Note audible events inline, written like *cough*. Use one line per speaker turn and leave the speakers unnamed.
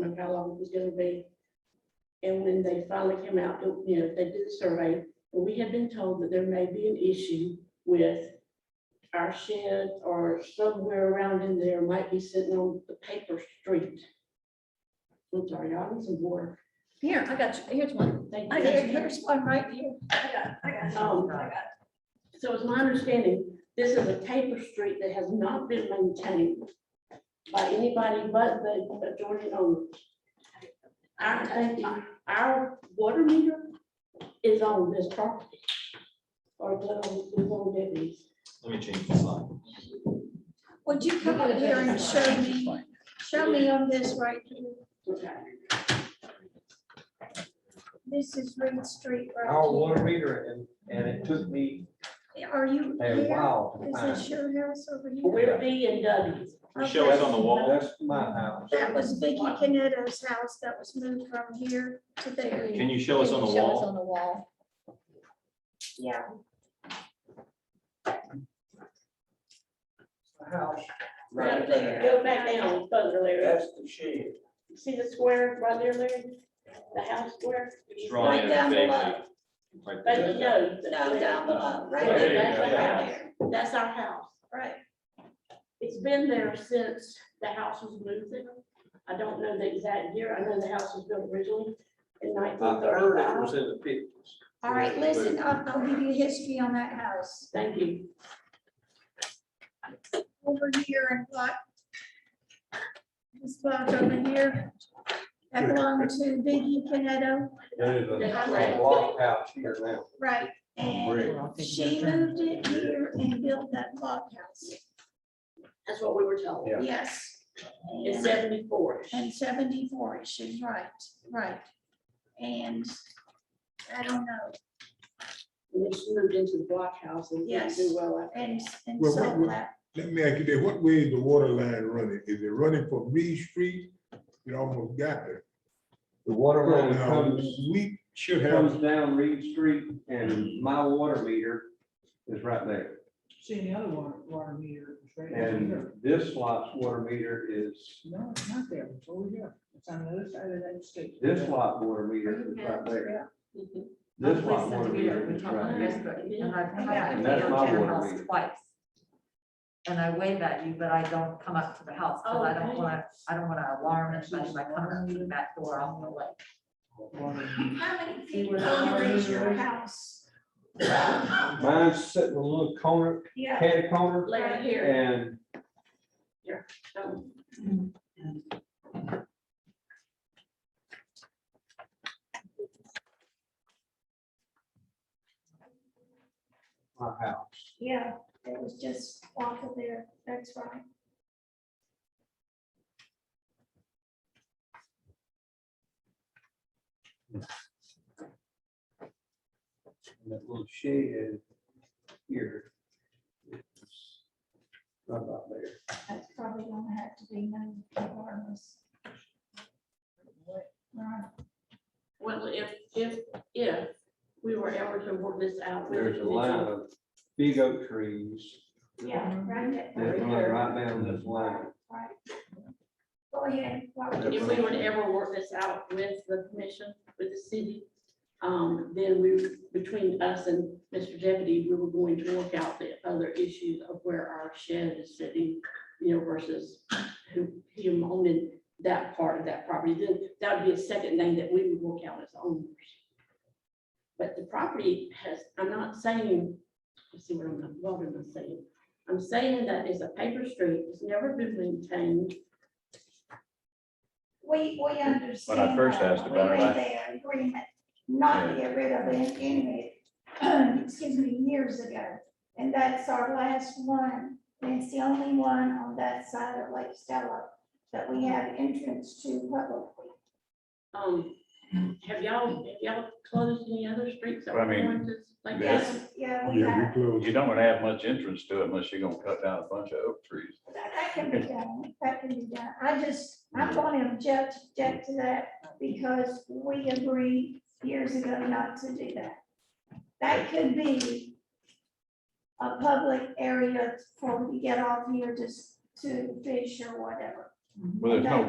was gonna be. And when they finally came out, you know, they did the survey, we had been told that there may be an issue with our shed or somewhere around in there might be sitting on the paper street. I'm sorry, y'all need some water.
Here, I got you. Here's one.
Thank
I
you.
got, here's one right here. I got, I got.
Oh.
some. I got-
So it's my understanding, this is a paper street that has not been maintained by anybody but the adjoining owners. Our, tank- our water meter is on this property. Or the, um, the whole deputies.
Let me change the slide.
Would you come over here and show me, show me on this right here?
Okay.
This is Reed Street
Our
right
water meter and, and it took me
here. Are you
a
here?
while to
Is
find.
this your house over here?
We're B and W.
We show it on the
it.
wall.
That's my house.
That was Vicky Canetto's house that was moved from here to there.
Can you show us on the wall?
Yeah,
My House.
Go
Right there.
go back down further, Larry.
That's the shed.
See the square right there, Larry? The house square?
It's drawn in
Right down
vaguely.
below.
Right
But
there.
no.
no, down below, right
Right
there,
there,
right
yeah.
there,
That's our house.
right.
It's been there since the house was moved there. I don't know the exact year. I know the house was built originally in
I
nineteen
heard it was
thirty-five.
in the fifties.
All right, listen, I'll, I'll give you history on that house.
Thank you.
Over here and block. This block over here. That belonged to Vicky Canetto,
There is a
Right.
block house here now.
right? And she moved it here and built that block house,
That's what we were told.
Yeah.
yes.
It's seventy-four.
And seventy-four, she's right, right. And I don't know,
And it's moved into the blockhouse and didn't
Yes.
do well after.
and, and
Well,
so
we- we-
that,
Let me ask you this, what way is the water line running? Is it running from Reed Street? It almost got there.
The water line
Now,
comes,
We should have,
comes down Reed Street and my water meter is right there.
See, the other water, water meter is right over
And
here.
this lot's water meter is,
No, it's not there, it's over here, it's on the other side of that street.
this lot water meter is right there.
Mhm.
This lot water meter is right there.
And I've come out to
And that's
your
my water
house
meter.
twice. And I wave at you, but I don't come up to the house, because I don't
Okay.
want to, I don't want to alarm anybody by coming up to the back door, I'm gonna like.
how many
See
feet
where the
over
water
is your
is?
house?
Mine's sitting in a little corner,
Yeah,
catty corner,
Larry, here.
and
um,
my house.
yeah, it was just off of there, that's right.
And That little shed here. It's Right about there.
That's probably gonna have to be known regardless. Right.
Well, if, if, if we were ever to work this out. we would
There's a line of big oak trees
Yeah, right.
that run right down this line.
Right. Go ahead. Robert.
If we were to ever work this out with the commission, with the city, um, then we, between us and Mr. Deputy, we were going to work out the other issues of where our shed is sitting, you know, versus who, him owning that part of that property, then that would be a second thing that we would work out as owners. But the property has, I'm not saying, let's see what I'm, what am I saying? I'm saying that it's a paper street, it's never been maintained,
We, we understand.
When I first
that.
asked about it,
We
I-
made that agreement not to get rid of it anyway, *clears throat* excuse me, years ago. And that's our last one. And it's the only one on that side of Lake Stella that we have entrance to publicly.
Um, have y'all, have y'all closed any other streets? that
Well, I
were
mean,
going to- like
Yes.
that?
Yeah, we
yeah, we
have.
close.
You don't want to have much entrance to it unless you're gonna cut down a bunch of oak trees.
That that can be done, that can be done. I just, I'm going to object, object to that because we agreed years ago not to do that. That could be a public area for, you get off here just to fish or whatever.
Well, there's no